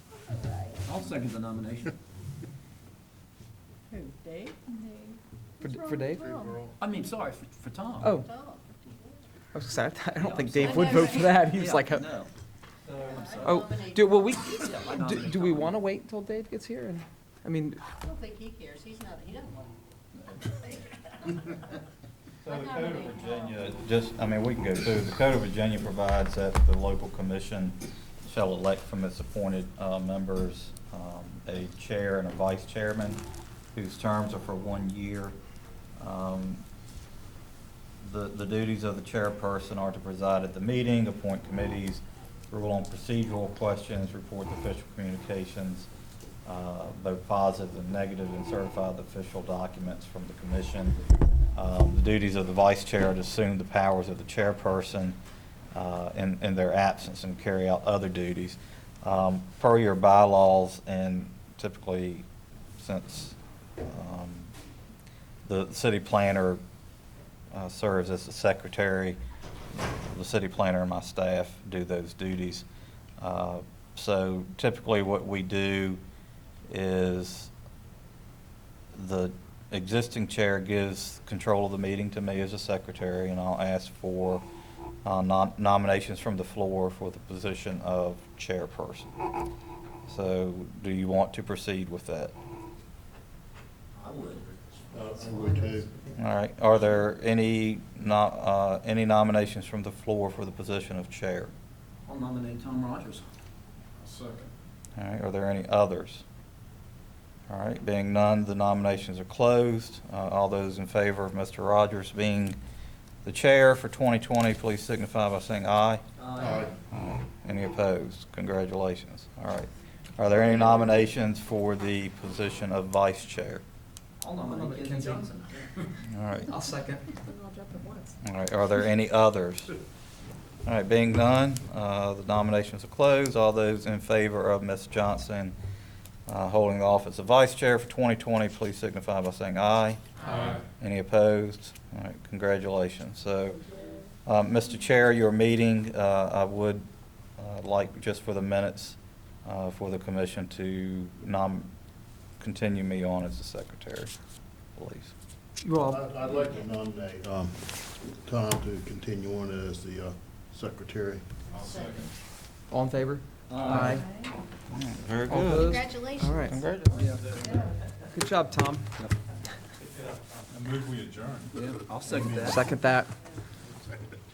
I'll second the nomination. Who, Dave? For, What's wrong for with Dave? Tom? I mean, sorry, for, for Tom. Oh, Tom. I was sorry, I Yeah, don't think I'm Dave sorry. would vote for that. He Yeah, was like, uh, No. I'm sorry. oh, do, well, we, Yeah, I do, nominate do we Tom. want to wait until Dave gets here? And I mean, I don't think he cares, he's not, he doesn't want to. So I the Code of nominate Virginia, just, I mean, we can go through, the Code of Virginia provides that the local commission shall elect from its appointed uh, members um, a chair and a vice chairman whose terms are for one year. Um, The the duties of the chairperson are to preside at the meeting, appoint committees, rule on procedural questions, report the official communications, uh, both positive and negative, and certify the official documents from the commission. Um, The duties of the vice chair are to assume the powers of the chairperson uh, in in their absence and carry out other duties. Um, Per your bylaws, and typically since um, the city planner uh, serves as the secretary. The city planner and my staff do those duties. Uh, So typically, what we do is the existing chair gives control of the meeting to me as a secretary, and I'll ask for uh, nom- nominations from the floor for the position of chairperson. So do you want to proceed with that? I would. All right, are there any, no- uh, any nominations from the floor for the position of chair? I'll nominate Tom Rogers. All right, are there any others? All right, being none, the nominations are closed. Uh, All those in favor of Mr. Rogers being the chair for 2020, please signify by saying aye. Aye. Any opposed? Congratulations. All right. Are there any nominations for the position of vice chair? I'll nominate Kenzie Johnson. All right. I'll second. All right, are there any others? All right, being none, uh, the nominations are closed. All those in favor of Ms. Johnson uh, holding the office of Vice Chair for 2020, please signify by saying aye. Aye. Any opposed? All right, congratulations. So, uh, Mr. Chair, your meeting, uh, I would uh, like, just for the minutes, uh, for the commission to nom, continue me on as the Secretary, please. You all, I'd I'd like to nominate um, Tom to continue on as the uh, secretary. all in favor? Aye. Very All opposed? Congratulations. All right, Congratulations. good job, Tom. I move we adjourn. Yeah, I'll second that. Second that.